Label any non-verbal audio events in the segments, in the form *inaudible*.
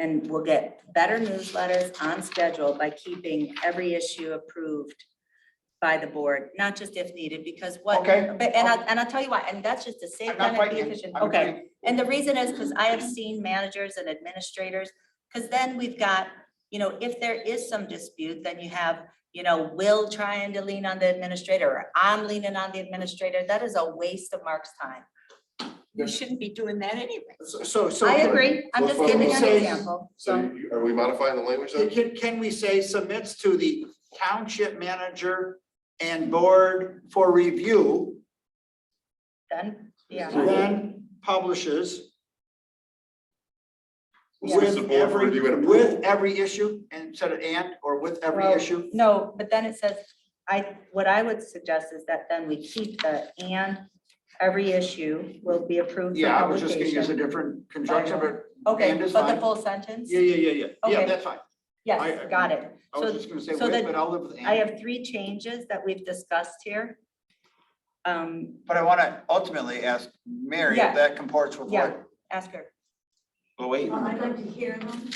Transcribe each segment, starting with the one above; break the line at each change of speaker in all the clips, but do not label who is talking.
And we'll get better newsletters on schedule by keeping every issue approved by the board, not just if needed, because what.
Okay.
But, and I, and I'll tell you why, and that's just to save
I'm not
time and be
fighting.
efficient.
I'm
Okay.
agreeing.
And the reason is because I have seen managers and administrators, because then we've got, you know, if there is some dispute, then you have, you know, Will trying to lean on the administrator, or I'm leaning on the administrator. That is a waste of Mark's time.
You shouldn't be doing that anyway.
So, so. so-
I agree. I'm just
Well,
giving you an
say-
example.
So
So,
you- are we modifying the language then?
Can, can we say submits to the township manager and board for review,
then, yeah,
then publishes
We'll
with
say the board
every,
review and approval.
with every issue instead of and, or with every
Well,
issue?
no, but then it says, I, what I would suggest is that then we keep the and every issue will be approved for
Yeah, I was just gonna use a
publication.
different conjunction, but
Okay,
and is
but the
fine.
full sentence?
yeah, yeah, yeah, yeah, yeah,
Okay.
that's fine.
Yes,
I-
got it.
I
So
was just gonna say
so
with,
that-
but I'll live with
I
and.
have three changes that we've discussed here. Um,
But I wanna ultimately ask Mary
Yeah.
if that comports with
Yeah.
what
ask her.
Oh wait.
Well, I'd like to hear them.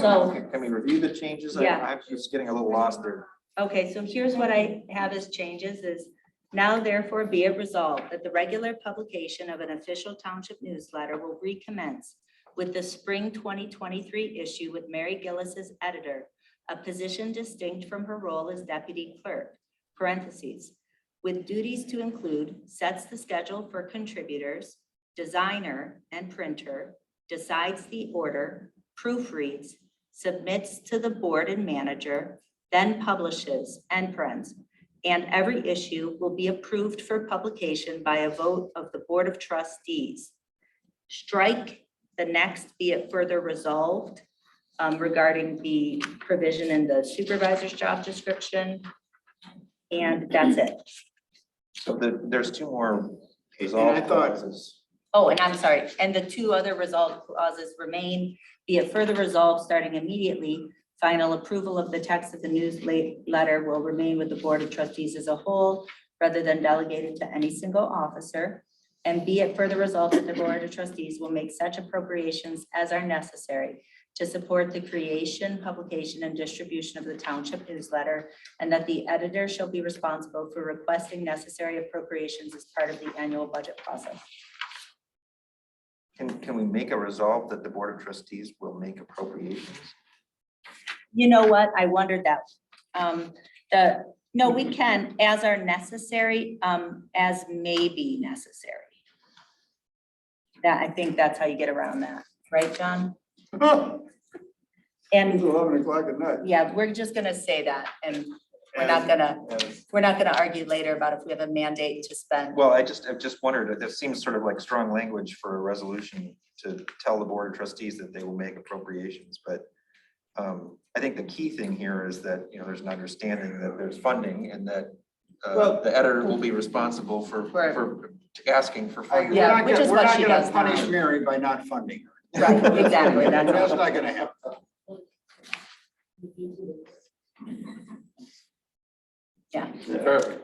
So-
Can can we review the changes? I-
Yeah.
I'm just getting a little lost there.
Okay, so here's what I have as changes is now therefore be it resolved that the regular publication of an official township newsletter will recommence with the spring twenty twenty-three issue with Mary Gillis as editor, a position distinct from her role as deputy clerk, parentheses, with duties to include sets the schedule for contributors, designer and printer, decides the order, proofreads, submits to the board and manager, then publishes, end parents. And every issue will be approved for publication by a vote of the Board of Trustees. Strike the next be it further resolved um, regarding the provision in the supervisor's job description. And that's it.
So the, there's two more
And
resolve
I thought,
clauses.
Oh, and I'm sorry, and the two other resolve clauses remain, be it further resolved, starting immediately, final approval of the text of the newsletter will remain with the Board of Trustees as a whole, rather than delegated to any single officer. And be it further resolved that the Board of Trustees will make such appropriations as are necessary to support the creation, publication, and distribution of the township newsletter, and that the editor shall be responsible for requesting necessary appropriations as part of the annual budget process.
Can, can we make a resolve that the Board of Trustees will make appropriations?
You know what? I wondered that. Um, the, no, we can, as are necessary, um, as may be necessary. That, I think that's how you get around that, right, John? And,
eleven o'clock at night.
yeah, we're just gonna say that, and we're not gonna, we're not gonna argue later about if we have a mandate to spend.
Well, I just, I've just wondered, this seems sort of like strong language for a resolution to tell the Board of Trustees that they will make appropriations, but um, I think the key thing here is that, you know, there's an understanding that there's funding and that uh,
Well-
the editor will be responsible for,
Right.
for asking for
I- We're
funding.
Yeah,
not
which
gonna,
is
we're
what
not
she
gonna
does now.
punish Mary by not funding her.
Right, exactly, that's
That's not gonna happen.
Alright.
Right.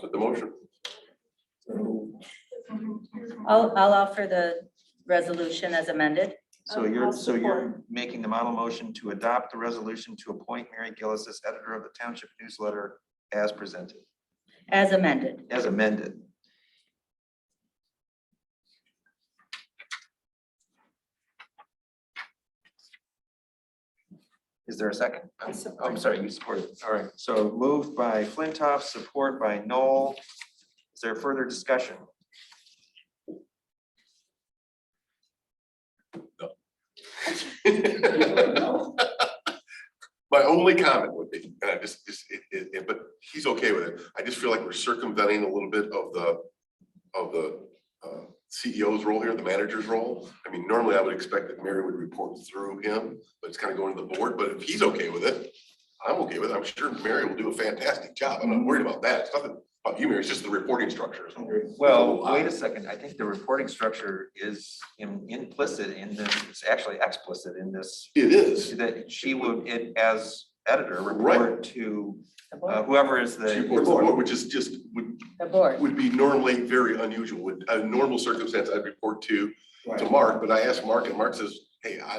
So the motion,
I'll, I'll offer the resolution as amended.
So you're, so you're making the model motion to adopt the resolution to appoint Mary Gillis as editor of the Township Newsletter as presented,
As amended.
as amended. Is there a second? I'm I'm sorry, you support it. All right, so moved by Flintoff, support by Noel. Is there further discussion?
*laughs* my only comment would be, and I just, just, it, it, it- but he's okay with it. I just feel like we're circumventing a little bit of the, of the uh, CEO's role here, the manager's role. I mean, normally I would expect that Mary would report through him, but it's kind of going to the board, but if he's okay with it, I'm okay with it. I'm sure Mary will do a fantastic job. I'm not worried about that. It's nothing about you, Mary. It's just the reporting structure. is all. Oh,
Well,
uh,
wait a second. I think the reporting structure is im- implicit in this, it's actually explicit in this
It is.
that she would, it as editor,
Right.
report to
The
uh,
board.
whoever is the.
She reports to the board, which is just, would,
The board.
would be normally very unusual. Would, a normal circumstance, I'd report to, to
Right.
Mark, but I asked Mark and Mark says, hey, I,